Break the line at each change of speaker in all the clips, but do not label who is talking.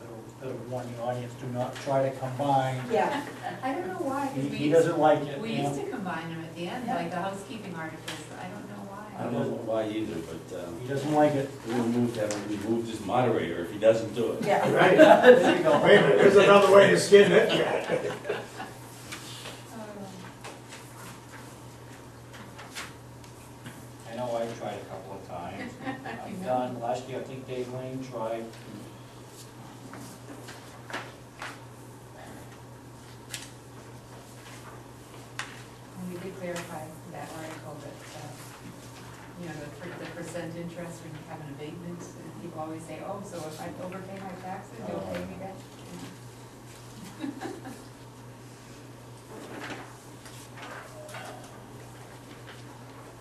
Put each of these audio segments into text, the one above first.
That'll that'll warn the audience, do not try to combine.
Yeah, I don't know why.
He, he doesn't like it.
We
you know?
used to combine them at the end,
Yeah.
like the housekeeping articles, I don't know why.
I
I don't know why either, but um,
He doesn't like it.
we'll move that, we moved his moderator if he doesn't do it.
Yeah,
Right,
There you go.
wait a minute, there's another way to skin it.
I know I tried a couple of times. I've done, last year I think Dave Lane tried.
And we did clarify that article that, uh, you know, the per- the percent interest when you have an abatement, and people always say, oh, so if I overpay my taxes, you'll pay me back.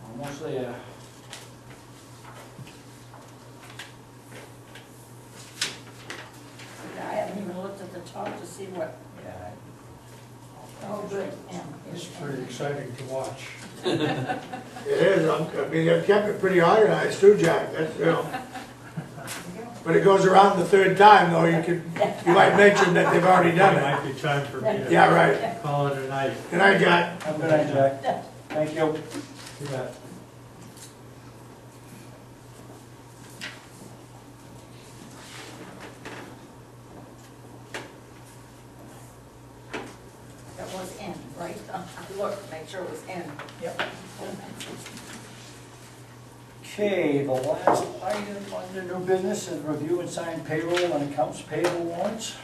Almost there.
I haven't even looked at the top to see what.
Yeah.
Oh, good. yeah.
It's pretty exciting to watch.
It is, I'm- I mean, they've kept it pretty organized too, Jack, that's, you know. But it goes around the third time, though, you could, you might mention that they've already
It
done
might be time for me
it.
to
Yeah, right.
call it a night.
Good night, Jack.
Have a good night, Jack. Thank you.
You bet.
That was N, right? I looked, make sure it was N.
Yep. Okay, the last item under new business is review and sign payroll and accounts payable warrants.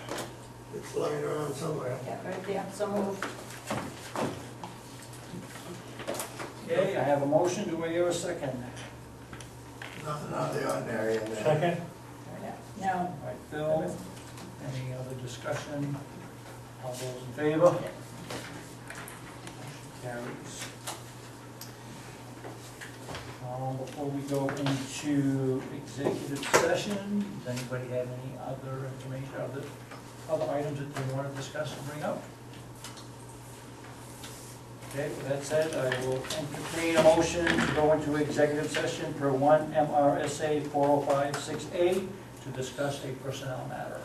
It's lying around somewhere.
Yeah, right there, so moved.
Okay, I have a motion. Do I hear a second?
Nothing out of the ordinary in there.
Second?
No.
All right, Phil, any other discussion? All those in favor? Motion Carries. Um, Before we go into executive session, does anybody have any other information, other, other items that they want to discuss and bring up? Okay, with that said, I will entertain a motion to go into executive session oh per one MRSA 4056A to discuss a personnel matter.